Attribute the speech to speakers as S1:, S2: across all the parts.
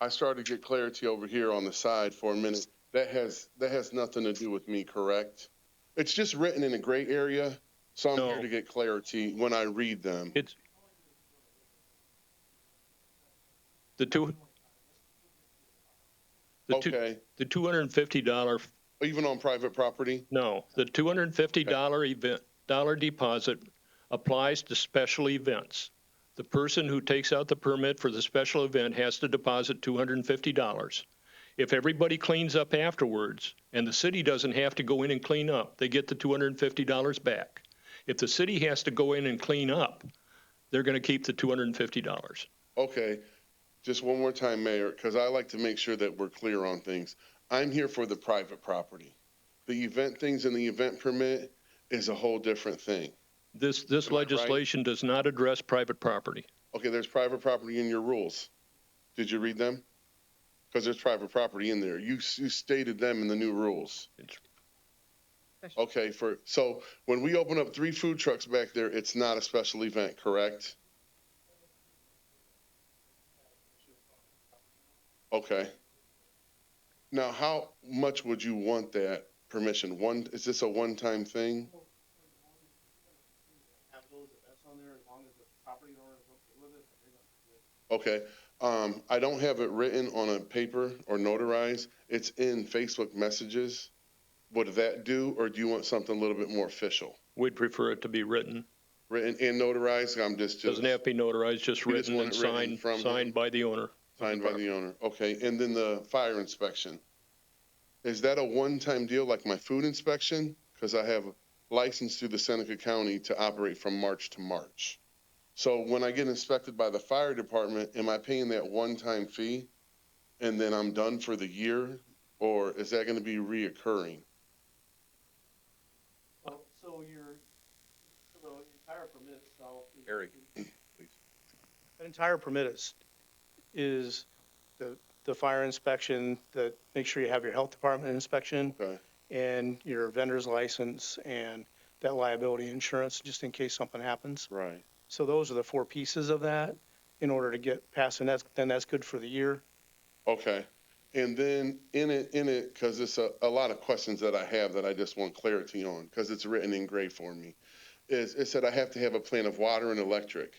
S1: I started to get clarity over here on the side for a minute. That has, that has nothing to do with me, correct? It's just written in a gray area, so I'm here
S2: No.
S1: to get clarity when I read them.
S2: It's the two. The two,
S1: Okay,
S2: the two hundred and fifty dollar,
S1: even on private property?
S2: no, the two hundred and fifty dollar event, dollar deposit applies to special events. The person who takes out the permit for the special event has to deposit two hundred and fifty dollars. If everybody cleans up afterwards, and the city doesn't have to go in and clean up, they get the two hundred and fifty dollars back. If the city has to go in and clean up, they're gonna keep the two hundred and fifty dollars.
S1: Okay, just one more time, Mayor, because I like to make sure that we're clear on things. I'm here for the private property. The event things and the event permit is a whole different thing.
S2: This, this
S1: Am I right?
S2: legislation does not address private property.
S1: Okay, there's private property in your rules. Did you read them? Because there's private property in there. You, s- you stated them in the new rules.
S2: It's-
S1: Okay, for, so when we open up three food trucks back there, it's not a special event, correct? Okay. Now, how much would you want that permission? One, is this a one-time thing?
S3: have those events on there as long as the property owner is okay with it. they're gonna do it.
S1: Okay, um, I don't have it written on a paper or notarized. It's in Facebook messages. Would that do, or do you want something a little bit more official?
S2: We'd prefer it to be written.
S1: Written and notarized, I'm just, just
S2: Doesn't have to be notarized, just
S1: We just
S2: written
S1: want
S2: and
S1: it written
S2: signed,
S1: from him.
S2: signed by the owner.
S1: signed by the owner. Okay, and then the fire inspection. Is that a one-time deal like my food inspection? Because I have a license through the Seneca County to operate from March to March. So when I get inspected by the fire department, am I paying that one-time fee? And then I'm done for the year? Or is that gonna be reoccurring?
S3: So, so your, so the entire permit itself. is-
S4: Eric,
S3: An entire permit is, is the, the fire inspection, the, make sure you have your health department inspection.
S1: Okay.
S3: And your vendor's license and that liability insurance, just in case something happens.
S1: Right.
S3: So those are the four pieces of that in order to get past, and that's, then that's good for the year.
S1: Okay. And then in it, in it, because it's a, a lot of questions that I have that I just want clarity on, because it's written in gray for me, is it said I have to have a plan of water and electric.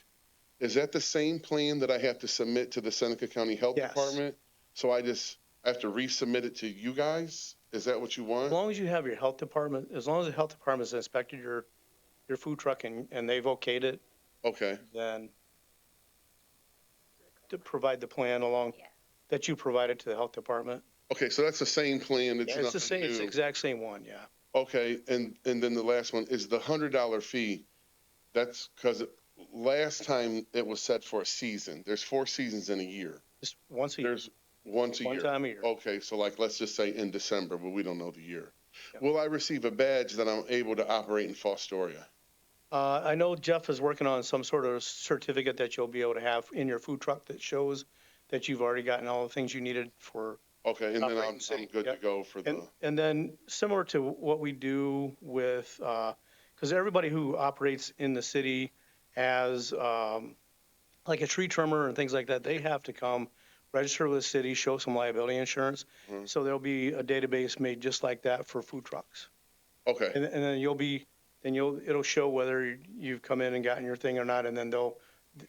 S1: Is that the same plan that I have to submit to the Seneca County Health
S3: Yes.
S1: Department? So I just I have to resubmit it to you guys? Is that what you
S3: As
S1: want?
S3: long as you have your health department, as long as the health department's inspected your, your food truck and, and they've okayed it,
S1: Okay.
S3: then to provide the plan along, that you provided to the health department.
S1: Okay, so that's the same plan. It's,
S3: It's the
S1: nothing
S3: same, it's the
S1: new.
S3: exact same one, yeah.
S1: Okay, and, and then the last one is the hundred dollar fee. That's because last time it was set for a season. There's four seasons in a year.
S3: Just once a year,
S1: There's once a
S3: one
S1: year.
S3: time a year.
S1: Okay, so like, let's just say in December, but we don't know the year.
S3: Yeah.
S1: Will I receive a badge that I'm able to operate in Fostoria?
S3: Uh, I know Jeff is working on some sort of certificate that you'll be able to have in your food truck that shows that you've already gotten all the things you needed for
S1: Okay, and then
S3: Operate in
S1: I'm,
S3: city,
S1: I'm good to
S3: yep.
S1: go for
S3: And,
S1: the,
S3: and then similar to what we do with, because everybody who operates in the city as, um, like a tree trimmer and things like that, they have to come register with the city, show some liability insurance.
S1: Mhm.
S3: So there'll be a database made just like that for food trucks.
S1: okay,
S3: And, and then you'll be, then you'll, it'll show whether you've come in and gotten your thing or not. And then they'll,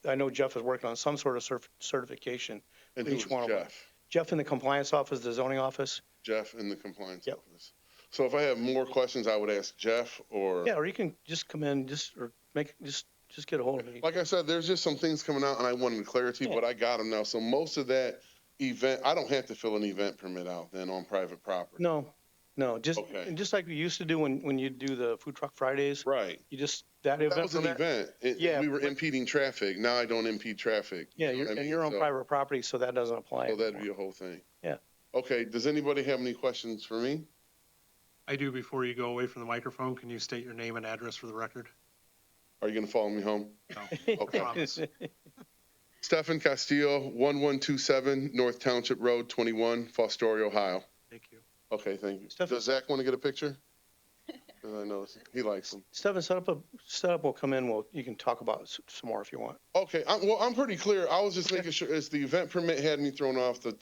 S3: I know Jeff is working on some sort of cer- certification.
S1: and
S3: each
S1: who's
S3: one of them.
S1: Jeff?
S3: Jeff in the compliance office, the zoning office.
S1: Jeff in the compliance
S3: Yep.
S1: office. So if I have more questions, I would ask Jeff or.
S3: Yeah, or you can just come in, just, or make, just, just get a hold of me.
S1: Like I said, there's just some things coming out, and I wanted clarity,
S3: Yeah.
S1: but I got them now. So most of that event, I don't have to fill an event permit out then on private property.
S3: No, no, just,
S1: Okay.
S3: and just like we used to do when, when you do the Food Truck Fridays,
S1: Right.
S3: you just, that
S1: That
S3: event
S1: was an
S3: permit.
S1: event. It-
S3: Yeah,
S1: We were
S3: but-
S1: impeding traffic. Now I don't impede traffic.
S3: Yeah,
S1: You know
S3: you're,
S1: what I
S3: and
S1: mean?
S3: you're on
S1: So-
S3: private property, so that doesn't apply.
S1: Oh, that'd be a whole thing.
S3: Yeah.
S1: Okay, does anybody have any questions for me?
S5: I do before you go away from the microphone, can you state your name and address for the record?
S1: Are you gonna follow me home?
S5: No.
S1: okay.
S5: Promise.
S1: Stefan Castillo, one one two seven North Township Road, twenty-one, Fostoria, Ohio.
S5: Thank you.
S1: Okay, thank you.
S3: Stefan-
S1: Does Zach wanna get a picture? 'Cause I know he likes them.
S3: Stefan, set up a, set up, we'll come in, we'll, you can talk about s- some more if you want.
S1: Okay, I'm, well, I'm pretty clear. I was just making sure, as the event permit had me thrown off the